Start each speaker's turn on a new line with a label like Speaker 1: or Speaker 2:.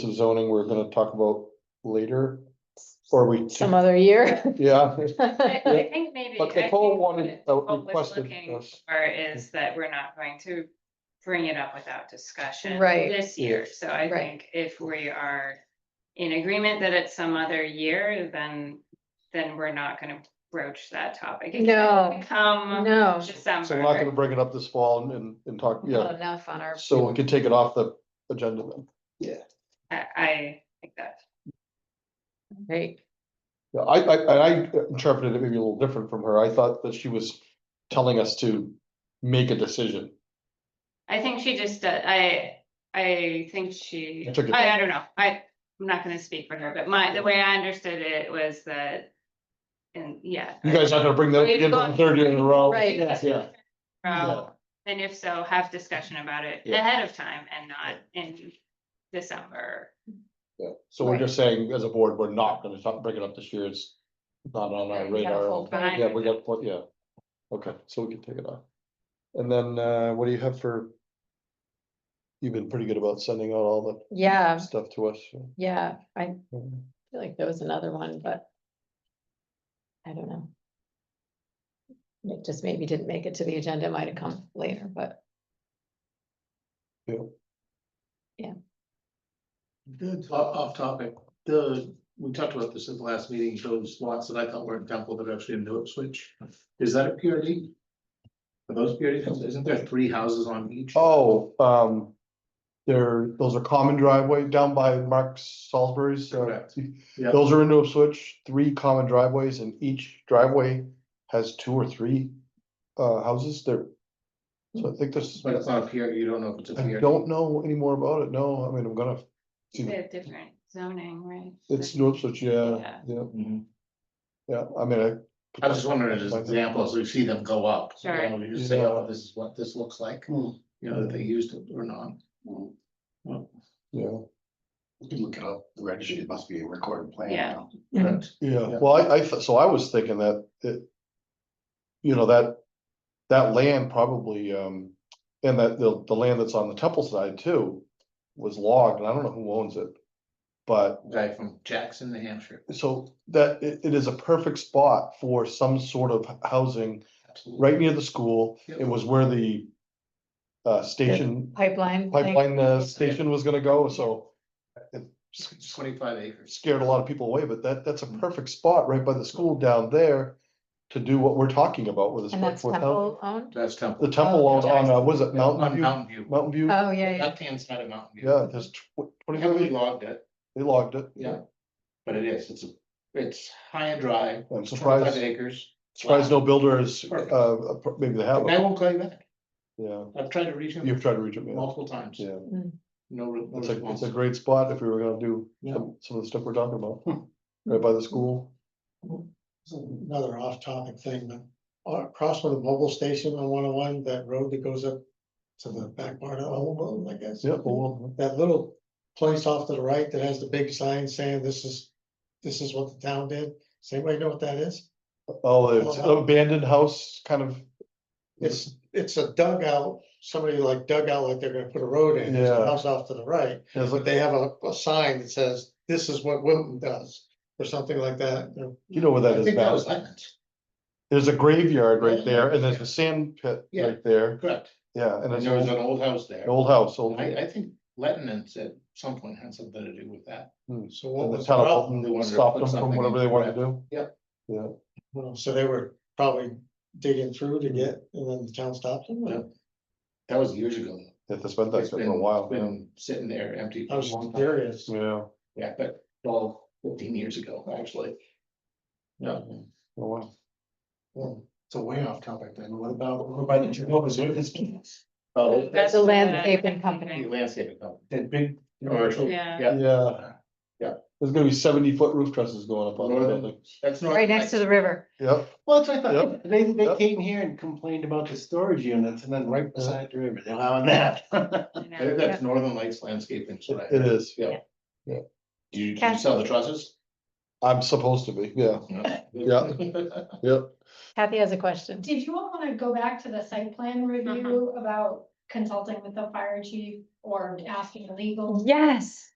Speaker 1: some zoning we're gonna talk about later, or we,
Speaker 2: some other year.
Speaker 1: yeah.
Speaker 3: I I think maybe.
Speaker 1: But
Speaker 3: I think
Speaker 1: Nicole wanted, uh,
Speaker 3: what we're
Speaker 1: requested
Speaker 3: looking
Speaker 1: us.
Speaker 3: For is that we're not going to bring it up without discussion.
Speaker 2: Right.
Speaker 3: This year, so
Speaker 2: Right.
Speaker 3: I think if we are in agreement that it's some other year, then, then we're not gonna broach that topic. It can
Speaker 2: No.
Speaker 3: Come
Speaker 2: No,
Speaker 1: So we're not gonna
Speaker 3: December,
Speaker 1: bring it up this fall and- and, and talk,
Speaker 2: not
Speaker 1: yeah,
Speaker 2: enough on our.
Speaker 1: so we can take it off the agenda then.
Speaker 3: I, I think that,
Speaker 2: Right.
Speaker 1: Yeah, I, I, and I interpreted it maybe a little different from her, I thought that she was telling us to make a decision.
Speaker 3: I think she just, uh, I, I think she,
Speaker 1: I took it-
Speaker 3: I, I don't know, I, I'm not gonna speak for her, but my, the way I understood it was that. And, yeah.
Speaker 1: You guys aren't gonna bring that up
Speaker 3: We've
Speaker 1: again for the
Speaker 3: got-
Speaker 1: third year in a row.
Speaker 2: Right.
Speaker 1: Yeah, yeah.
Speaker 3: Um, and if so, have discussion about it
Speaker 1: Yeah.
Speaker 3: ahead of time and not in December.
Speaker 1: Yeah. So we're
Speaker 2: Right.
Speaker 1: just saying, as a board, we're not gonna talk, bring it up this year, it's not on our
Speaker 2: Right, we got a
Speaker 1: radar.
Speaker 2: full
Speaker 3: plate.
Speaker 1: Yeah, we got, pl- yeah, okay, so we can take it off. And then, uh, what do you have for? You've been pretty good about sending out all the
Speaker 2: Yeah,
Speaker 1: stuff to us. so,
Speaker 2: yeah, I
Speaker 1: um,
Speaker 2: feel like there was another one, but. I don't know. It just maybe didn't make it to the agenda, might have come later, but
Speaker 1: Yeah,
Speaker 4: Good, off, off topic, the, we talked about this at the last meeting, those lots that I thought were in Temple that are actually in New Switch. is that a PRD? Are those PRD, isn't there three houses on each?
Speaker 1: oh, um. There, those are common driveway down by Mark Salisbury's. uh,
Speaker 4: Correct. Yeah.
Speaker 1: Those are into a switch, three common driveways and each driveway has two or three uh houses there. So I think this.
Speaker 4: But it's not a PR, you don't know if it's a
Speaker 1: I
Speaker 4: PRD.
Speaker 1: don't know any more about it, no, I mean, I'm gonna,
Speaker 3: They
Speaker 2: Mm-hmm.
Speaker 1: Yeah.
Speaker 3: have different zoning, right?
Speaker 1: it's no such, yeah,
Speaker 3: Yeah.
Speaker 1: yeah,
Speaker 4: Mhm.
Speaker 1: yeah, I mean, I.
Speaker 4: I was just wondering, as examples, we see them go up. you
Speaker 3: Sure.
Speaker 4: know, You say, oh, this is what this looks like,
Speaker 1: Hmm.
Speaker 4: you know, that they used it or not. Well,
Speaker 1: Yeah,
Speaker 5: You can look it up, the registry, it must be a recorded plan
Speaker 3: Yeah.
Speaker 5: now.
Speaker 4: correct.
Speaker 1: yeah,
Speaker 4: Yeah.
Speaker 1: well, I I, thought- so I was thinking that it. You know, that, that land probably, um, and that the the land that's on the Temple side too. Was logged, and I don't know who owns it. But
Speaker 4: Guy from Jackson, New Hampshire.
Speaker 1: so that it it is a perfect spot for some sort of housing
Speaker 4: Absolutely.
Speaker 1: right near the school.
Speaker 4: Yep.
Speaker 1: It was where the. Uh, station
Speaker 2: pipeline. thing-
Speaker 1: pipeline uh, station was gonna go, so
Speaker 4: Twenty-five acres.
Speaker 1: scared a lot of people away, but that, that's a perfect spot right by the school down there to do what we're talking about with this.
Speaker 2: And that's
Speaker 1: workforce housing.
Speaker 2: temple owned?
Speaker 4: That's Temple.
Speaker 1: The temple on, on, uh, was it Mountain
Speaker 4: On
Speaker 1: View,
Speaker 4: Mountain View.
Speaker 1: Mountain View?
Speaker 2: Oh, yeah, yeah.
Speaker 4: Left hand side of Mountain View.
Speaker 1: Yeah, there's twenty,
Speaker 4: Heavily
Speaker 1: they
Speaker 4: logged it,
Speaker 1: logged it.
Speaker 4: Yeah. but it is, it's, a it's high and dry,
Speaker 1: I'm
Speaker 4: twenty-five
Speaker 1: surprised,
Speaker 4: acres.
Speaker 1: surprised no builders,
Speaker 4: Perfect.
Speaker 1: uh, maybe they
Speaker 4: I
Speaker 1: have, it.
Speaker 4: won't call you back,
Speaker 1: yeah,
Speaker 4: I've tried to reach him
Speaker 1: you've tried to reach them, yeah,
Speaker 4: multiple times,
Speaker 1: yeah.
Speaker 4: no, re- no
Speaker 1: It's a, it's
Speaker 4: response.
Speaker 1: a great spot if we were gonna do
Speaker 4: Yeah. Hmm.
Speaker 1: some, some of the stuff we're talking about, right by the school.
Speaker 6: It's another off-topic thing, but uh, across from the mobile station on one oh one, that road that goes up to the back part of Old Bolton, I guess.
Speaker 1: Yeah, well,
Speaker 6: That little place off to the right that has the big sign saying this is, this is what the town did. Does anybody know what that is?
Speaker 1: oh, it's
Speaker 4: uh,
Speaker 1: an abandoned house, kind of.
Speaker 6: It's, it's a dugout, somebody like dug out like they're gonna put a road in, there's
Speaker 1: Yeah.
Speaker 6: a house off to the right.
Speaker 1: It's
Speaker 6: But
Speaker 1: like,
Speaker 6: they have a, a sign that says, this is what Wilton does, or something like that. you know.
Speaker 1: you know where that
Speaker 4: I
Speaker 1: is,
Speaker 4: think that was
Speaker 1: Matt.
Speaker 4: Lyman's,
Speaker 1: There's a graveyard right
Speaker 4: Yeah.
Speaker 1: there, and there's a sand pit
Speaker 4: Yeah.
Speaker 1: right there,
Speaker 4: correct,
Speaker 1: yeah, and
Speaker 4: and
Speaker 1: it's
Speaker 4: there was
Speaker 1: an
Speaker 4: an old house there,
Speaker 1: old house, old.
Speaker 4: I, I think Letton's at some point had something to do with that.
Speaker 1: Hmm.
Speaker 6: So what
Speaker 1: And the
Speaker 6: was?
Speaker 1: town of
Speaker 6: Ralph-
Speaker 1: Fulton
Speaker 4: they wanted to
Speaker 1: stopped
Speaker 4: put
Speaker 1: them from
Speaker 4: something
Speaker 1: whatever
Speaker 4: in
Speaker 1: they wanted to
Speaker 4: there.
Speaker 1: do.
Speaker 4: Yep.
Speaker 1: Yeah,
Speaker 6: Well, so they were probably digging through
Speaker 5: Mm-hmm.
Speaker 6: to get, and then the town stopped them. or-
Speaker 4: That was years ago.
Speaker 1: yeah, that's been that
Speaker 4: It's
Speaker 1: for
Speaker 4: been-
Speaker 1: a while, yeah.
Speaker 4: Been sitting there empty. for
Speaker 6: I
Speaker 4: a
Speaker 6: was
Speaker 4: long time.
Speaker 6: curious.
Speaker 1: yeah, oh,
Speaker 4: Yeah, but 12, 15 years ago, actually. Yeah.
Speaker 1: a while.
Speaker 5: It's a way off topic then, what about, over by the Jehovah's Witnesses?
Speaker 4: Oh,
Speaker 2: That's a landscaping
Speaker 4: the
Speaker 2: company.
Speaker 4: landscaping company.
Speaker 5: That big commercial.
Speaker 3: Yeah,
Speaker 4: Yeah.
Speaker 1: Yeah.
Speaker 4: Yeah.
Speaker 1: There's gonna be seventy foot roof trusses going up on the
Speaker 4: Northern-
Speaker 1: building,
Speaker 4: That's not.
Speaker 2: Right next to the river.
Speaker 1: yep,
Speaker 5: Well, that's what I
Speaker 1: Yep.
Speaker 5: thought, they, they
Speaker 1: Yep.
Speaker 5: came here and complained about the storage units and then right beside the river, they're allowing that.
Speaker 3: you
Speaker 4: I think
Speaker 3: know,
Speaker 4: that's Northern Lights Landscaping. so I-
Speaker 1: it is,
Speaker 4: Yeah.
Speaker 1: Yeah.
Speaker 4: Do you, do you
Speaker 2: Cash-
Speaker 4: sell the trusses?
Speaker 1: I'm supposed to be, yeah, yep.
Speaker 2: Kathy has a question. Mm-hmm.
Speaker 7: Did you all wanna go back to the site plan review about consulting with the fire chief or asking legal?
Speaker 2: Yes,